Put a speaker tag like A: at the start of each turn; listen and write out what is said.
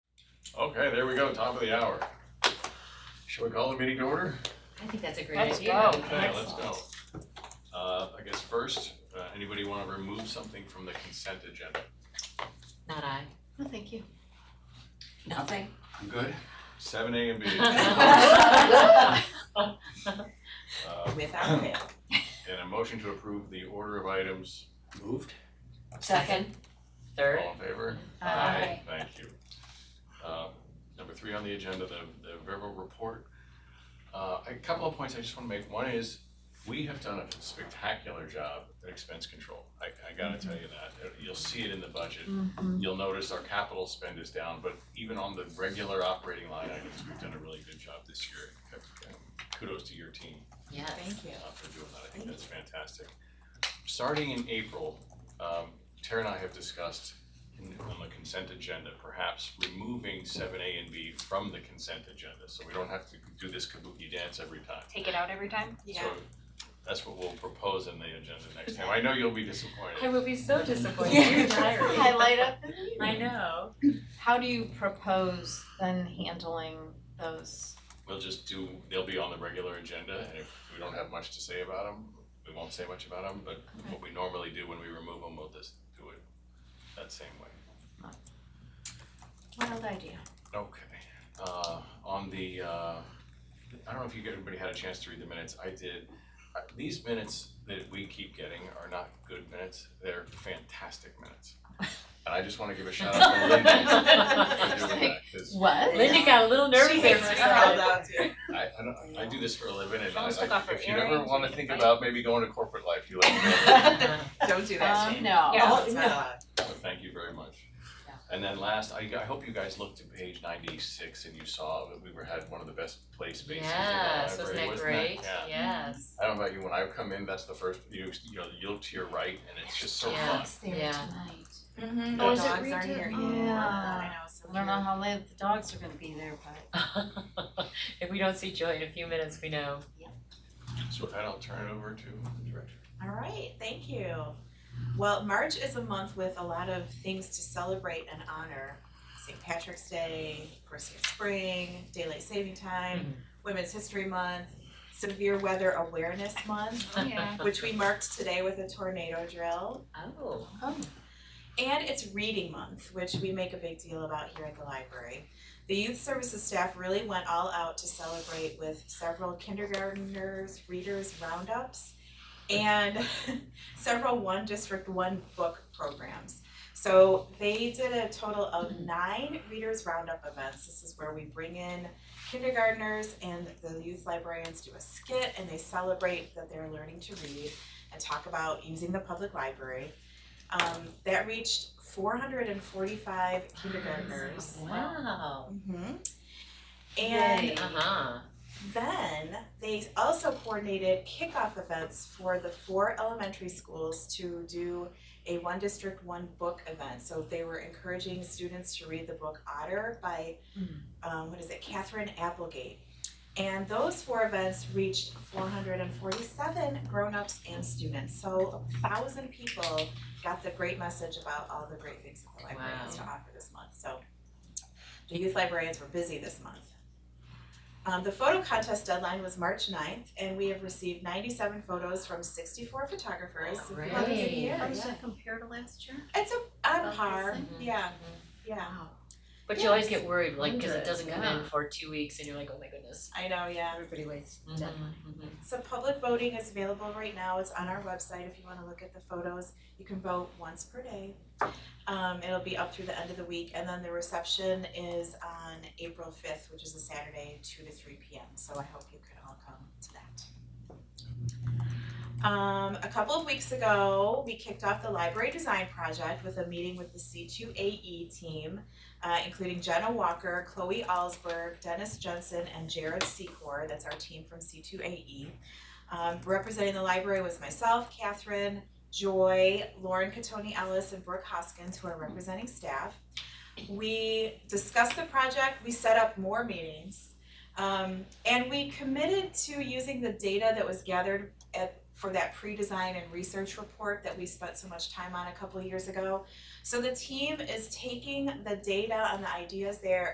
A: Okay, there we go, top of the hour. Shall we call the meeting to order?
B: I think that's a great
C: Let's
B: idea.
C: go.
A: Okay, let's go. Uh, I guess first, uh, anybody wanna remove something from the consent agenda?
B: Not I.
D: Oh,
B: No, thank you.
E: Nothing.
A: I'm good. Seven A and B. Uh,
E: Without fail.
A: and a motion to approve the order of items,
F: Moved.
B: Second, third.
A: all in favor?
C: Aye.
A: Thank you. Uh, Number three on the agenda, the, the verbal report. Uh, A couple of points I just want to make. One is, we have done a spectacular job at expense control. I, I gotta
C: Mm-hmm.
A: tell you that. Uh, You'll see it in the budget. You'll notice our capital spend is down, but even on the regular operating line items, we've done a really good job this year. Kudos to your team
B: Yes.
E: Thank you.
A: uh, for doing that. I think that's fantastic. Starting in April, um, Tara and I have discussed in- on the consent agenda, perhaps removing seven A and B from the consent agenda, so we don't have to do this kabuki dance every time.
C: Take it out every time?
A: So that's what we'll propose in the agenda next time. I know you'll be disappointed.
C: I will be so disappointed.
E: Yeah.
C: You're tired.
E: Highlight of the
C: I know.
D: How do you propose then handling those?
A: We'll just do, they'll be on the regular agenda, and if we don't have much to say about them, we won't say much about them, but what we normally do when we remove them, we'll just do it that same way.
D: Wild idea.
A: Okay, uh, on the, uh, I don't know if you, everybody had a chance to read the minutes, I did. Uh, These minutes that we keep getting are not good minutes, they're fantastic minutes. And I just wanna give a shout out to Linda for doing that, 'cause
D: What?
C: Linda got a little nervous
E: She
C: there
E: gets
C: for a
E: held
C: second.
E: out to.
A: I, I don't, I do this for a living and I,
C: Almost took off
A: I-
C: her
A: if you never
C: earrings
A: wanna
C: when you
A: think
C: fight.
A: about maybe going to corporate life, you let me know.
E: Don't do that,
D: Um,
E: Shane.
D: no.
C: Yeah.
E: It's not allowed.
A: So thank you very much.
B: Yeah.
A: And then last, I, I hope you guys looked at page ninety-six and you saw that we were, had one of the best place bases in the
B: Yes,
A: library,
B: wasn't that
A: wasn't it?
B: great?
A: Yeah.
B: Yes.
A: I don't know about you, when I come in, that's the first, you, you know, you look to your right and it's just so fun.
D: Dogs there
B: Yeah.
D: tonight.
E: Mhm.
A: Oh, is
D: Mm-hmm. it
E: Dogs
D: redo-
E: aren't here.
D: oh.
E: anymore. I
D: Yeah.
E: know, so
D: I don't know how late the dogs are gonna be there, but
B: If we don't see Joy in a few minutes, we know.
A: So with that, I'll turn it over to the director.
E: All right, thank you. Well, March is a month with a lot of things to celebrate and honor. St. Patrick's Day, of course, there's spring, daylight saving time, Women's History Month, Severe Weather Awareness Month,
C: Oh, yeah.
E: which we marked today with a tornado drill.
B: Oh.
E: And it's reading month, which we make a big deal about here at the library. The youth services staff really went all out to celebrate with several kindergarteners, readers roundups, and several one district, one book programs. So they did a total of nine readers roundup events. This is where we bring in kindergarteners and the youth librarians do a skit and they celebrate that they're learning to read and talk about using the public library. Um, that reached 445 kindergartners.
B: Wow. Uh-huh.
E: hmm And
B: Yay. Uh-huh.
E: then they also coordinated kickoff events for the four elementary schools to do a one district, one book event. So they were encouraging students to read the book Otter by, um, what is it, Catherine Applegate. And those four events reached 447 grown-ups and students. So a thousand people got the great message about all the great things that the library has to offer this month. So the youth librarians were busy this month. Um, the photo contest deadline was March 9th, and we have received ninety-seven photos from sixty-four photographers.
B: Oh,
E: So
B: great.
E: that was a
B: Yeah.
D: how
E: year.
D: does that compare to last year?
E: It's a, on
D: About
E: par,
D: the
E: yeah, yeah,
D: Wow.
B: Mm-hmm. But you always get worried, like, because it
D: Hundred,
B: doesn't come in
D: yeah.
B: for two weeks and you're like, oh my goodness.
E: I know, yeah.
D: Everybody waits.
B: Mhm,
E: So public voting is available right now, it's on our website if you wanna look at the photos, you can vote once per day. Um, it'll be up through the end of the week, and then the reception is on April fifth, which is a Saturday, two to three P M, so I hope you can all come to that. Um, a couple of weeks ago, we kicked off the library design project with a meeting with the C two A E team, uh, including Jenna Walker, Chloe Alsberg, Dennis Jensen, and Jared Secor. That's our team from C2AE. Um, representing the library was myself, Catherine, Joy, Lauren Catoni Ellis, and Brooke Hoskins, who are representing staff. We discussed the project, we set up more meetings, um, and we committed to using the data that was gathered at, for that pre-design and research report that we spent so much time on a couple years ago. So the team is taking the data and the ideas there